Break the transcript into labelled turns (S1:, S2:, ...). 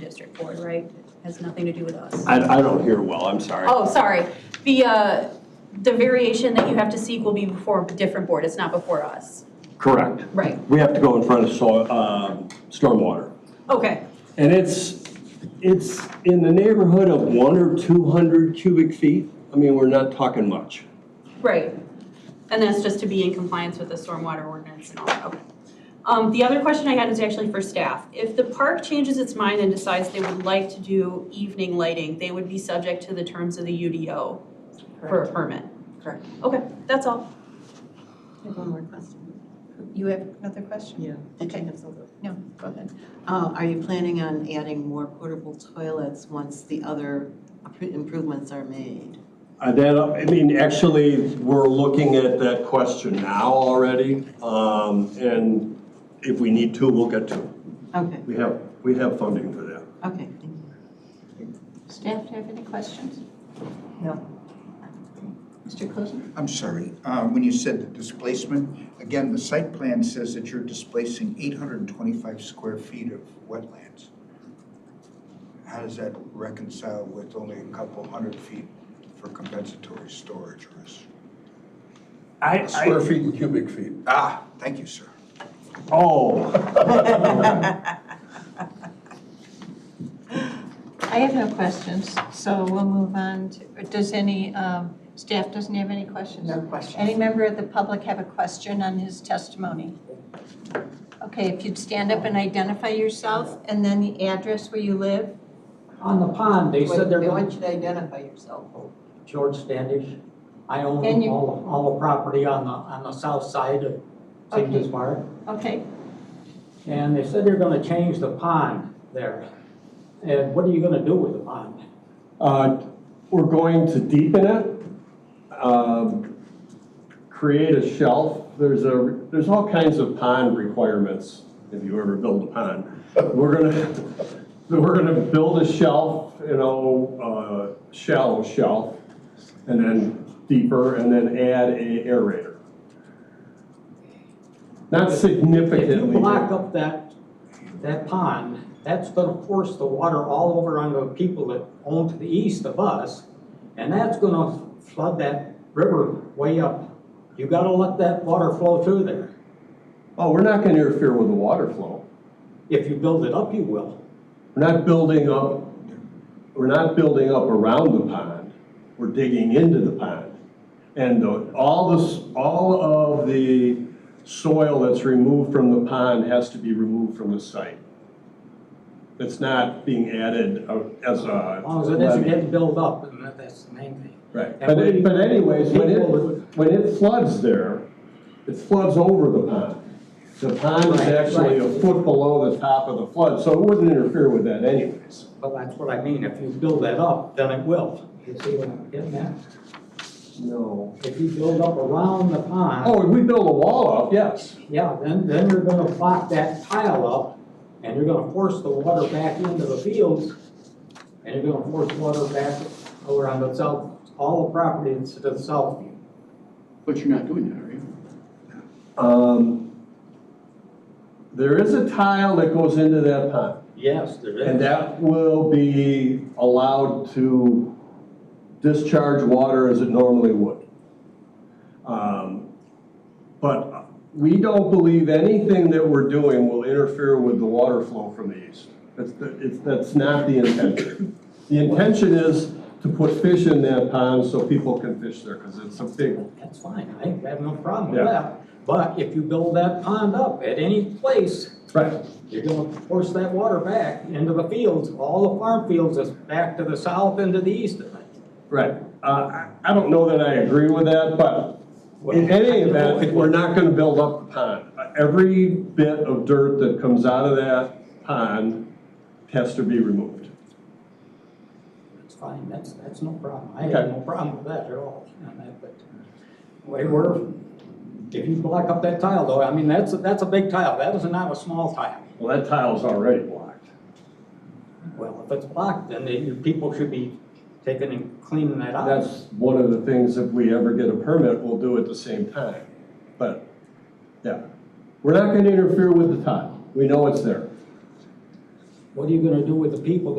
S1: district board, right? It Has nothing to do with us.
S2: I, I don't hear well, I'm sorry.
S1: Oh, sorry. The, uh, the variation that you have to seek will be before a different board. It's not before us.
S2: Correct.
S1: Right.
S2: We have to go in front of soil, um, stormwater.
S1: Okay.
S2: And it's, it's in the neighborhood of one or two hundred cubic feet. I mean, we're not talking much.
S1: Right. And that's just to be in compliance with the stormwater ordinance and all that, okay. Um, the other question I had is actually for staff. If the park changes its mind and decides they would like to do evening lighting, they would be subject to the terms of the UDO for a permit?
S3: Correct.
S1: Okay, that's all.
S3: I have one more question.
S4: You have another question?
S3: Yeah. Did you
S4: Okay.
S3: have something?
S4: No, go ahead.
S3: Uh, Are you planning on adding more portable toilets once the other appro- improvements are made?
S2: Uh, That, I mean, actually, we're looking at that question now already. Um, and if we need to, we'll get to it.
S3: Okay,
S2: We have, we have funding for that.
S3: okay, thank you.
S4: Staff, do you have any questions?
S3: No.
S4: Mr. Closen?
S5: I'm sorry, uh, when you said the displacement, again, the site plan says that you're displacing 825 square feet of wetlands. How does that reconcile with only a couple hundred feet for compensatory storage or is-
S2: I,
S6: Square feet and cubic feet.
S5: Ah, thank you, sir.
S2: oh,
S4: I have no questions, so we'll move on. to- Does any, um, staff doesn't have any questions?
S3: No question.
S4: Any member of the public have a question on his testimony? Okay, if you'd stand up and identify yourself and then the address where you live.
S7: On the pond, they said they're
S3: They
S7: going,
S3: want you to identify yourself.
S7: George Standish, I
S4: And
S7: own
S4: you-
S7: all, all the property on the, on the south side of St.
S4: Okay.
S7: Louis Park.
S4: Okay,
S7: And they said they're gonna change the pond there. And what are you gonna do with the pond?
S2: Uh, We're going to deepen it, um, create a shelf. There's a, there's all kinds of pond requirements if you ever build a pond. We're gonna, we're gonna build a shelf, you know, uh, shallow shelf, and then deeper, and then add a aerator. Not significantly.
S7: If you block up that, that pond, that's gonna force the water all over on the people that own to the east of us, and that's gonna flood that river way up. You gotta let that water flow through there.
S2: Oh, we're not gonna interfere with the water flow.
S7: If you build it up, you will.
S2: We're not building up, we're not building up around the pond, we're digging into the pond. And the- all this, all of the soil that's removed from the pond has to be removed from the site. It's not being added uh, as a.
S7: As long as it doesn't get built up, and that- that's the main thing.
S2: Right,
S7: And
S2: but it-
S7: we-
S2: but anyways, when it,
S7: people-
S2: when it floods there, it floods over the pond. The pond is
S7: Right,
S2: actually a
S7: right.
S2: foot below the top of the flood, so it wouldn't interfere with that anyways.
S7: But that's what I mean, if you build that up, then it will. You see what I'm getting at?
S2: No.
S7: If you build up around the pond,
S2: Oh, if we build a wall up, yes.
S7: yeah, then, then you're gonna block that tile up, and you're gonna force the water back into the fields, and you're gonna force water back over on the south, all the property that's to the south.
S6: But you're not doing that, are you?
S2: Um, There is a tile that goes into that pond,
S7: Yes, there is.
S2: and that will be allowed to discharge water as it normally would. Um, But we don't believe anything that we're doing will interfere with the water flow from the east. That's, the- it's- that's not the intention. The intention is to put fish in that pond so people can fish there, because it's a big
S7: That's fine, I have no problem with
S2: Yeah.
S7: that. But if you build that pond up at any place,
S2: Right.
S7: You're gonna force that water back into the fields, all the farm fields is back to the south and to the east of it.
S2: Right. Uh, I I don't know that I agree with that, but in any event, we're not going to build up the pond. Every bit of dirt that comes out of that pond has to be removed.
S7: That's fine, that's, that's no problem, I have
S2: Okay.
S7: no problem with that at all, on that, but way we're, if you block up that tile though, I mean, that's, that's a big tile, that is not a small tile.
S2: Well, that tile's already blocked.
S7: Well, if it's blocked, then the, your people should be taking and cleaning that out.
S2: That's one of the things, if we ever get a permit, we'll do at the same time. But, yeah, we're not going to interfere with the tile. We know it's there.
S7: What are you gonna do with the people